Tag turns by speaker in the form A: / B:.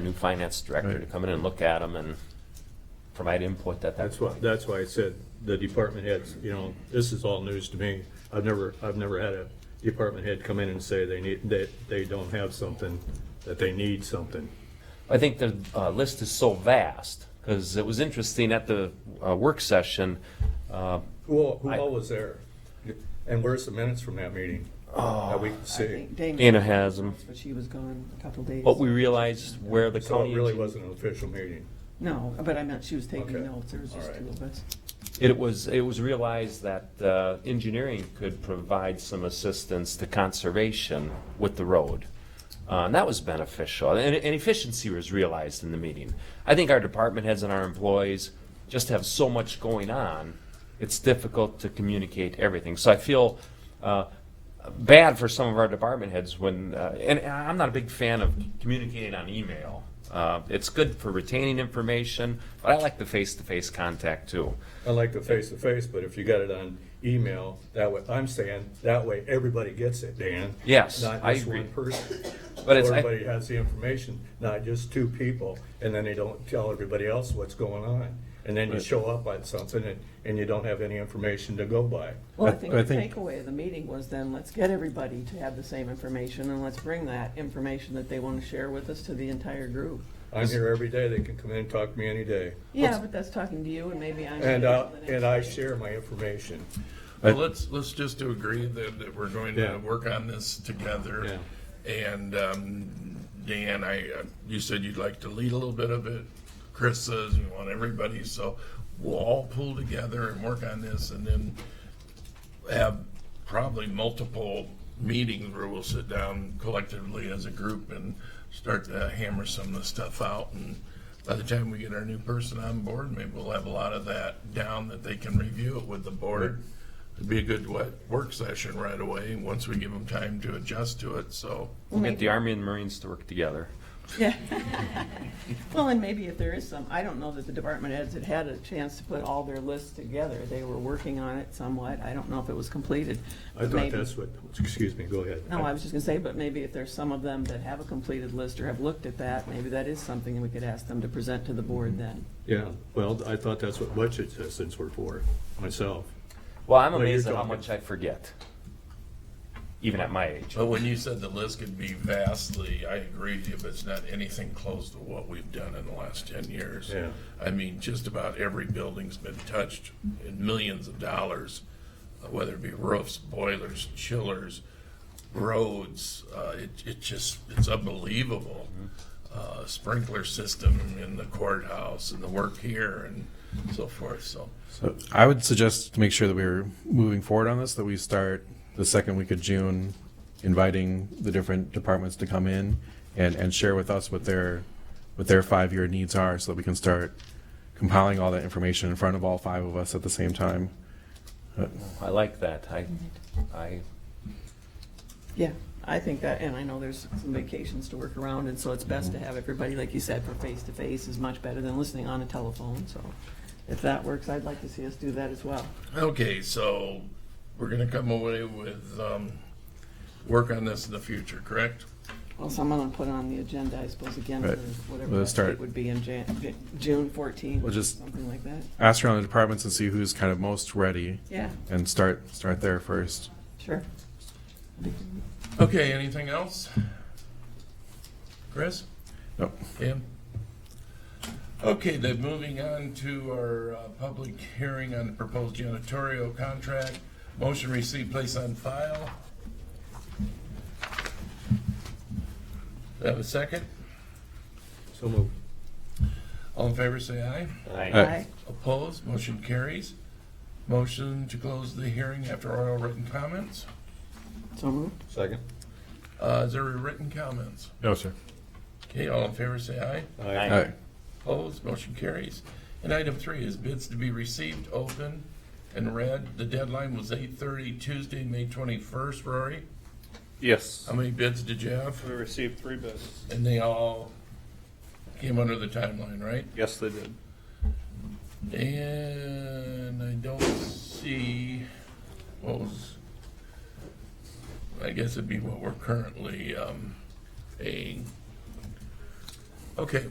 A: new finance director to
B: Right.
A: come in and look at them and provide input at that
B: That's why,
A: point.
B: that's why I said the department heads, you know, this is all news to me. I've never, I've never had a department head come in and say they need, that they don't have something, that they need something.
A: I think the uh, list is so vast, because it was interesting at the uh, work session, uh,
B: Who, who
A: I-
B: all was there? And where's the minutes from that meeting? That we can
C: Oh, I
B: see.
C: think Dana.
A: Dana has them.
C: But she was gone a couple days.
A: But we realized where the
B: So
A: county.
B: it really wasn't an official meeting.
C: No, but I meant she was
B: Okay.
C: taking notes, there was just
B: All right.
C: two of us.
A: It was, it was realized that uh, engineering could provide some assistance to conservation with the road. Uh, And that was beneficial, and and efficiency was realized in the meeting. I think our department heads and our employees just have so much going on, it's difficult to communicate everything. So I feel uh, bad for some of our department heads when, uh, and and I'm not a big fan of communicating on email. Uh, It's good for retaining information, but I like the face-to-face contact too.
B: I like the face-to-face, but if you got it on email, that way, I'm saying, that way everybody gets it, Dan.
A: Yes,
B: Not
A: I
B: just
A: agree.
B: one person.
A: But it's- I-
B: Everybody has the information, not just two people, and then they don't tell everybody else what's going on. And then you show up on something and, and you don't have any information to go by.
C: Well, I
D: I-
C: think
D: I
C: the
D: think-
C: takeaway of the meeting was then, let's get everybody to have the same information, and let's bring that information that they want to share with us to the entire group.
B: I'm here every day, they can come in and talk to me any day.
C: Yeah, but that's talking to you, and maybe I'm.
B: And, uh, and I
C: share.
B: share my information.
D: I-
E: Well, let's, let's just agree that, that we're going
B: Yeah.
E: to work on this together. And, um, Dan, I, uh, you said you'd like to lead a little bit of it. Chris says we want everybody, so we'll all pull together and work on this and then have probably multiple meetings where we'll sit down collectively as a group and start to hammer some of the stuff out. And by the time we get our new person on board, maybe we'll have a lot of that down that they can review it with the board. It'd be a good wo- work session right away, once we give them time to adjust to it, so.
A: We'll get the Army and Marines to work together.
C: Yeah. Well, and maybe if there is some, I don't know that the department heads had had a chance to put all their lists together. They were working on it somewhat. I don't know if it was completed.
B: I
C: but
B: thought
C: maybe-
B: that's what, excuse me, go ahead.
C: No, I was just gonna say, but maybe if there's some of them that have a completed list or have looked at that, maybe that is something that we could ask them to present to the board then.
B: Yeah, well, I thought that's what budget assistants were for, myself.
A: Well, I'm
B: Well, you're
A: amazed at how
B: talking-
A: much I forget, even at my age.
E: But when you said the list could be vastly, I agree with you, but it's not anything close to what we've done in the last ten years.
B: Yeah.
E: I mean, just about every building's been touched in millions of dollars, uh, whether it be roofs, boilers, chillers, roads, uh, it, it just, it's unbelievable. Uh, sprinkler system in the courthouse and the work here and so forth, so.
D: So I would suggest to make sure that we're moving forward on this, that we start the second week of June, inviting the different departments to come in and, and share with us what their, what their five-year needs are, so that we can start compiling all that information in front of all five of us at the same time.
A: I like that. I, I,
C: Yeah, I think that, and I know there's some vacations to work around, and so it's best to have everybody, like you said, for face-to-face is much better than listening on a telephone, so if that works, I'd like to see us do that as well.
E: Okay, so we're gonna come away with, um, work on this in the future, correct?
C: Well, someone will put it on the agenda, I suppose, again, for
D: Right.
C: whatever
D: We'll
C: that
D: start-
C: date would be in Jan, J- June fourteenth,
D: We'll just-
C: something like that.
D: Ask around the departments and see who's kind of most ready,
C: Yeah,
D: and start, start there first.
C: sure.
E: Okay, anything else? Chris?
D: Nope.
E: Dan? Okay, then moving on to our, uh, public hearing on the proposed janitorial contract. Motion received, place on file. Do I have a second?
B: So moved.
E: All in favor, say aye.
A: I,
D: Uh,
C: Aye.
E: Opposed, motion carries. Motion to close the hearing after oral written comments.
C: So moved.
B: Second?
E: Uh, is there any written comments?
D: No, sir.
E: Okay, all in favor say aye.
A: Aye.
D: All right,
E: Opposed, motion carries. And item three is bids to be received, open, and read. The deadline was eight thirty Tuesday, May twenty-first, Rory.
F: Yes.
E: How many bids did you have?
F: We received three bids.
E: And they all came under the timeline, right?
F: Yes, they did.
E: And I don't see what was, I guess it'd be what we're currently, um, paying. Okay,